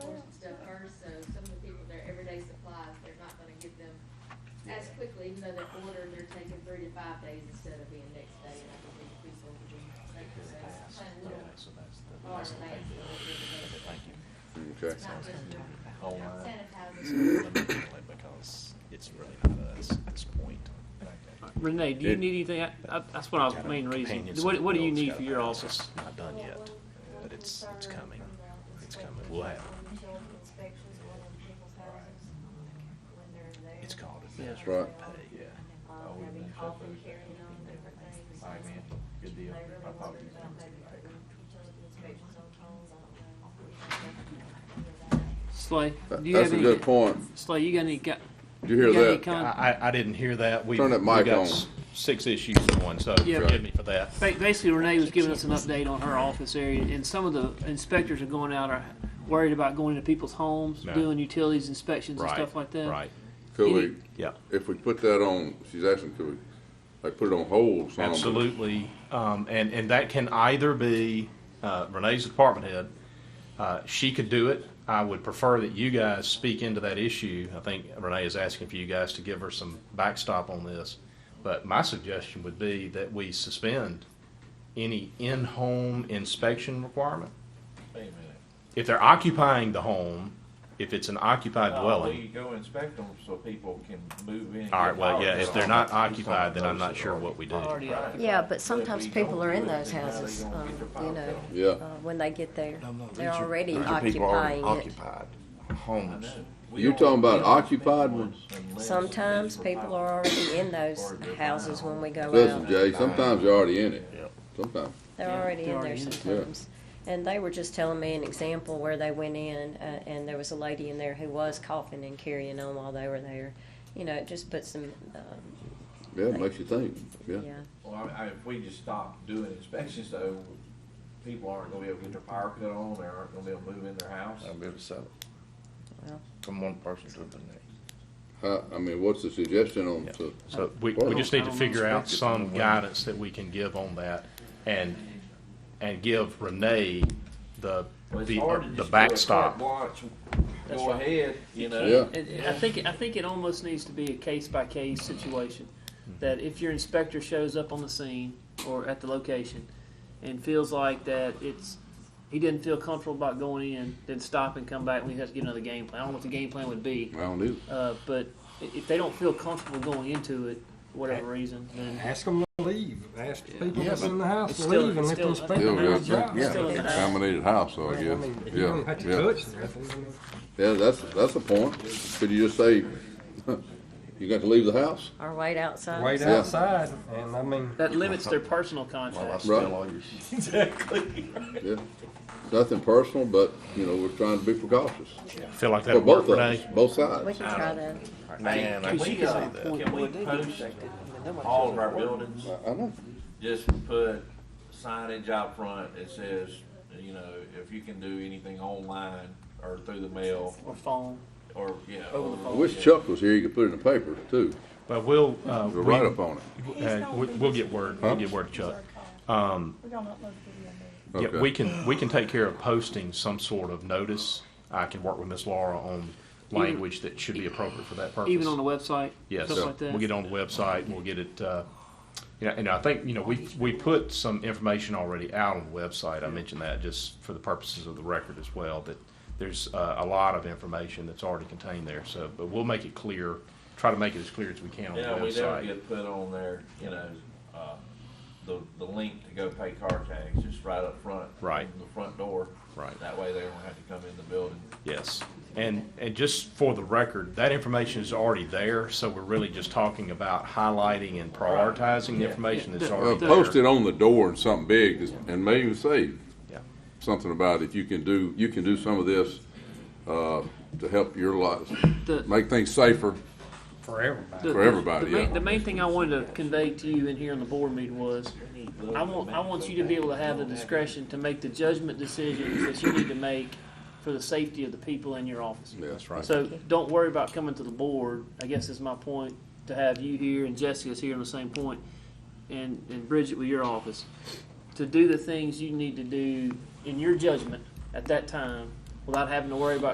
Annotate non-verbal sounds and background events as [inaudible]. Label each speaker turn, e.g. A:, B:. A: five days instead of being next day, and I think the police will be taking the next plan a little
B: so that's the,
A: hard
B: that's the
A: thing.
B: thing. Thank you.
C: Okay.
A: It's not just
B: All
A: your
B: right.
A: sanitizer.
B: Because it's really not us at this point.
D: Renee, do you
C: It-
D: need anything? I- I- That's what I was
B: Kind of
D: main reason.
B: companions
D: What, what do you
B: builds
D: need
B: got
D: for
B: a
D: your
B: balance.
D: office?
B: It's Not done yet, but it's, it's coming. It's coming. We'll have, it's called.
D: Yeah,
B: advance
D: that's
C: right.
B: pay.
E: Yeah.
A: Um,
E: Always
A: having
E: been shut
A: coffee
E: loose.
A: carrying on and different things.
E: All right, man. Good
A: They
E: deal.
A: really
E: I thought
A: wondered
E: you
A: about
E: said
A: maybe
E: you
A: putting
E: paid.
A: utility inspections on phones, I don't know.
D: Slay, do you
C: That's a
D: have any?
C: good point.
D: Slay, you got any? Got,
C: Did you hear
D: got any
C: that?
D: con-
B: I, I- I didn't hear that. We-
C: Turn that
B: we
C: mic
B: got
C: on.
B: s- Six issues in one, so
D: Yeah.
B: forgive me for that.
D: Ba- Basically, Renee was giving us an update on her office area, and some of the inspectors are going out are worried about going into people's homes,
B: No.
D: doing utilities inspections and stuff like that.
B: Right,
C: Could we,
B: yeah.
C: if we put that on, she's asking, could we, like, put it on hold some?
B: Absolutely, um, and and that can either be uh, Renee's department head. Uh, she could do it. I would prefer that you guys speak into that issue. I think Renee is asking for you guys to give her some backstop on this. But my suggestion would be that we suspend any in-home inspection requirement.
E: Wait a minute.
B: If they're occupying the home, if it's an occupied
E: No, We
B: dwelling.
E: go inspect them so people Oh, can move in. and
B: All right,
E: get
B: well, yeah,
E: power.
B: if they're not occupied, then I'm not sure what we do.
D: Already out.
E: Right.
F: Yeah, but
E: if
F: sometimes
E: we
F: people
E: don't
F: are in
E: do it,
F: those
E: then how they
F: houses,
E: gonna
F: um,
E: get their power
F: you know,
E: bill?
C: Yeah.
F: uh, when they get there. They're
G: these are-
F: already
G: these are people already
F: occupying it.
G: Occupied.
E: I
B: Homes.
E: know. We
C: You
E: don't-
C: talking
E: we
C: about
E: don't
C: occupied
E: inspect
C: ones?
E: unless it's
F: Sometimes
E: for
F: people
E: power.
F: are already in those
E: Or they're
F: houses
E: buying
F: when we go
C: Listen,
F: out.
C: Jay, sometimes you're already in it. Sometimes.
F: They're
D: They're
F: already in there
D: already in it.
F: sometimes. And they were just telling me an example where they went in, uh, and there was a lady in there who was coughing and carrying on while they were there. You know, it just puts them, um,
C: Yeah, it makes you think, yeah.
F: yeah.
E: Well, I, I, if we just stop doing inspections though, people aren't gonna be able to get their power cut on, they aren't gonna be able to move in their house.
B: Um,
G: I'll be able to sell it.
F: Well.
G: From one person to the next.
C: How, I mean, what's the suggestion on, to,
B: So we, we just need to figure out
G: Inspect it
B: some
G: somewhere.
B: guidance that we can give on that and, and give Renee the,
E: Well, it's
B: the, uh,
E: hard to
B: the
E: just go
B: backstop.
E: Watch,
D: That's
E: go
D: right.
E: ahead, you know.
C: yeah?
D: It- I think I think it almost needs to be a case by case situation.
B: Mm-hmm.
D: That if your inspector shows up on the scene or at the location and feels like that it's he didn't feel comfortable about going in, then stop and come back. We have to get another game plan. I don't know what the game plan would be,
C: I don't either.
D: uh, but i- if they don't feel comfortable going into it, for whatever reason, then
H: Ask them to leave. Ask the people
G: Yeah,
H: that's
G: but
H: in the house
D: it's
H: to
D: still-
H: leave and
D: it's
H: let them
D: still-
H: speak
C: Still
H: on their
C: good,
H: job.
C: yeah.
D: Still in the house.
C: Contaminated house, so
H: I
C: I guess,
H: mean, you
C: yeah,
H: don't have to
C: yeah.
H: touch nothing.
C: Yeah, that's, that's a point. Could you just say, [laughs] you got to leave the house?
F: Or wait outside.
H: Wait
C: Yeah.
H: outside, and I mean,
D: that limits their personal
G: While I
D: contact.
G: sell all your shit.
C: Yeah. Nothing personal, but, you know, we're trying to be precautious.
B: Feel like
C: For
B: that'll work,
C: both of us,
B: Renee?
C: both
F: We
C: sides.
F: can try that.
G: Man, I
E: Can
G: can see
E: we, uh,
G: that.
E: can we post all of our buildings,
C: I I know.
E: just put signage out front that says, you know, if you can do anything online or through the mail,
D: Or phone.
E: or, you know.
D: Over the
C: I
D: phone.
C: wish Chuck was here, he could put it in the paper too,
B: But we'll, uh,
C: do a
B: we,
C: write-up on it.
B: uh, we- we'll get word, we'll get word to Chuck. Um,
I: We're gonna upload the video. later.
B: yeah,
C: Okay.
B: we can, we can take care of posting some sort of notice. I can work with Miss Laura on language that should be appropriate for that purpose.
D: Even on the website,
B: Yes,
D: stuff like that.
B: we'll get on the website, we'll get it, uh, you know, and I think, you know, we, we put some information already out on the website. I mentioned that just for the purposes of the record as well, that there's uh, a lot of information that's already contained there, so, but we'll make it clear, try to make it as clear as we can on the
E: Yeah, we never
B: website.
E: get put on there, you know, uh, the, the link to go pay car tags, just right up front.
B: Right.
E: from The front door.
B: Right.
E: That way they don't have to come in the building.
B: Yes, and, and just for the record, that information is already there, so we're really just talking about highlighting and prioritizing the
E: Yeah.
B: information that's
D: Yeah.
C: Well,
B: already there.
C: Uh, post it on the door and something big, and maybe even say
B: Yeah.
C: something about if you can do, you can do some of this, uh, to help your lives,
D: The-
C: make things safer.
H: for everybody.
D: The-
C: For everybody,
D: the main,
C: yeah.
D: the main thing I wanted to convey to you in here in the board meeting was, I want I want you to be able to have the discretion to make the judgment decisions that you need to make for the safety of the people in your office.
C: That's right.
D: So don't worry about coming to the board. I guess is my point to have you here and Jessica's here on the same point, and and Bridget with your office to do the things you need to do in your judgment at that time without having to worry about